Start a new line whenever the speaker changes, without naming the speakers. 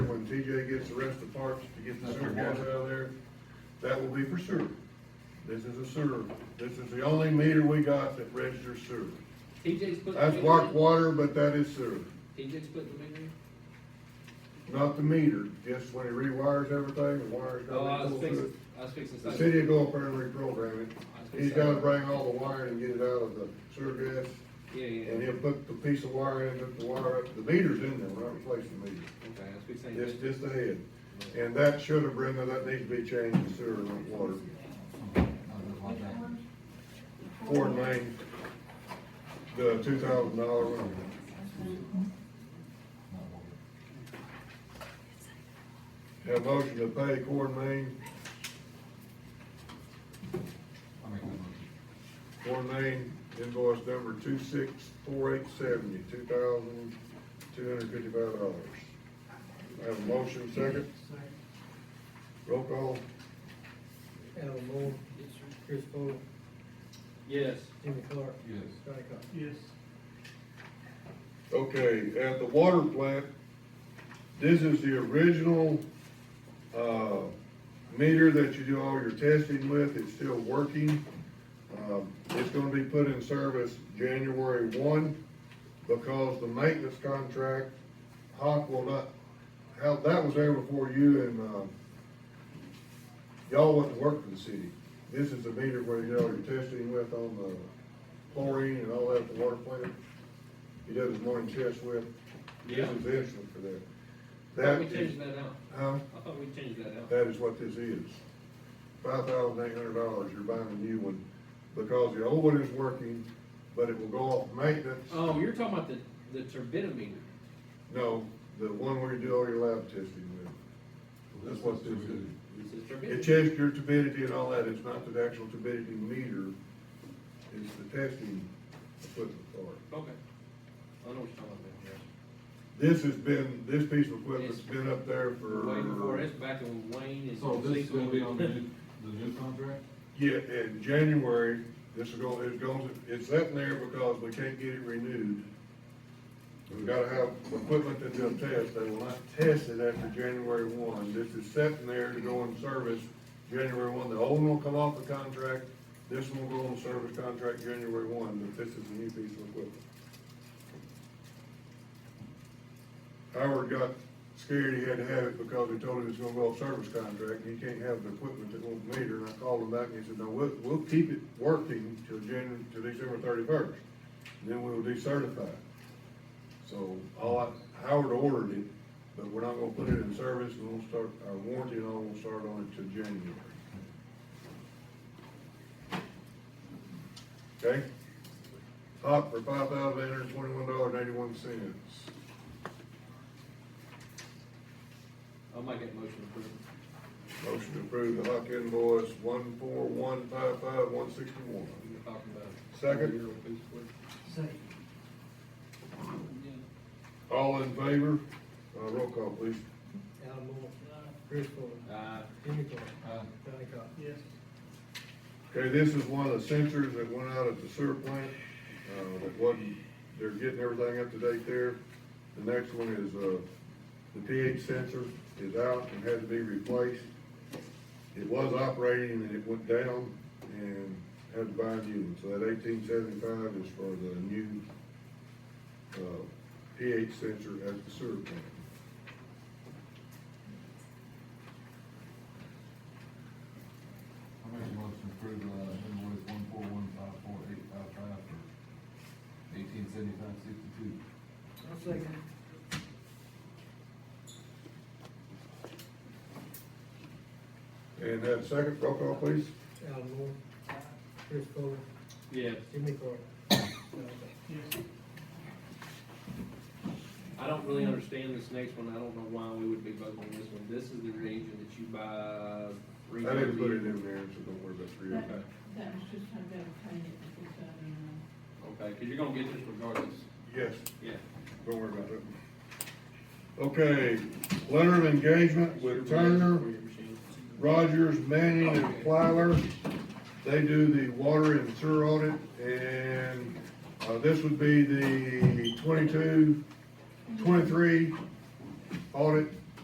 TJ gets the rest of the parts to get the sewer gas out of there, that will be for sewer. This is a sewer, this is the only meter we got that registers sewer.
TJ's putting.
That's
the
walk
meter
water, but that is sewer,
in. TJ's putting the meter in.
not the meter, just when he rewires everything, the wires
Oh, I
gotta be pulled
was
through.
fixing, I was fixing. to
The
say-
city will go up there and reprogram it,
I was fixing
he's
to
gotta
say-
bring all the wiring and get it out of the sewer gas,
Yeah, yeah,
and
okay,
he'll put the piece of wire in, hook the wire up, the meter's in there, we're not replacing the meter.
I was fixing to say-
Just, just ahead, and that should have, Brenda, that needs to be changed to sewer and water, Ford Main, the two thousand dollar one. Have a motion to pay Ford Main, Ford Main invoice number two six four eight seventy, two thousand two hundred fifty-five dollars. Have a motion, second, roll call,
Al Moore. Chris Fuller.
Yes,
Jimmy Clark.
Yes.
Johnny Cox.
Yes,
Okay, at the water plant, this is the original, uh, meter that you do all your testing with, it's still working. Um, it's gonna be put in service January one, because the maintenance contract, Hawk will not, how, that was there before you and, um, y'all wouldn't work for the city. This is the meter where you do all your testing with on the chlorine and all that at the water plant. He does his morning chest with, this
yeah.
is the instrument for that.
Thought we
That is,
changed that out.
huh?
I thought we changed that out.
That is what this is. Five thousand eight hundred dollars, you're buying a new one, because the old one is working, but it will go off maintenance.
Oh, you're talking about the, the turbidimeter.
No, the one where you do all your lab testing with, that's what this is.
This is
It
turbidimeter.
checks your turbidity and all that, it's not the actual turbidity meter, it's the testing equipment for it.
Okay. I know what you're talking about. yeah.
This has been, this piece of equipment's been up there for.
Way before, it's back when Wayne and.
So this is gonna be on the new, the new contract?
Yeah, in January, this is going, it goes, it's sitting there because we can't get it renewed. We've gotta have equipment that they'll test, they will not test it after January one, this is sitting there to go in service January one, the old one will come off the contract, this one will go on service contract January one, but this is a new piece of equipment. Howard got scared he had to have it because we told him it's gonna go off service contract, and he can't have the equipment that won't meter, and I called him back and he said, no, we'll, we'll keep it working till January, till December thirty-first, then we'll decertify it. So, all I, Howard ordered it, but we're not gonna put it in service, and we'll start, our warranty and all will start on it till January. Okay? Hot for five thousand eight hundred twenty-one dollars and eighty-one cents.
I'll make that motion approved.
Motion to approve the Huck invoice one four one five five one sixty-one.
We were talking about.
Second.
Second.
All in favor? Uh, roll call, please.
Al Moore. Chris Fuller.
Uh,
Jimmy Clark.
Aye.
Johnny Cox.
yes,
Okay, this is one of the sensors that went out at the sewer plant, uh, that wasn't, they're getting everything up to date there. The next one is, uh, the pH sensor is out and had to be replaced. It was operating and it went down and had to buy a new one, so that eighteen seventy-five is for the new, uh, pH sensor at the sewer plant.
I make a motion to approve, uh, invoice one four one five four eight five five for eighteen seventy-five sixty-two.
I'll second.
And that second, roll call, please.
Al Moore. Chris Fuller.
yes.
Jimmy Clark. Johnny Cox.
yes,
I don't really understand this next one. I don't know why we would be voting on this one. This is the region that you buy. three
I didn't put it
times a year.
in there, so don't worry about three
Okay,
That was just trying to obtain it before Saturday night.
okay, cause you're gonna get this regardless.
Yes.
Yeah.
Don't worry about it. Okay, letter of engagement with Turner, Rogers, Manning, and Plyler. They do the water and sewer audit, and, uh, this would be the 22, 23 audit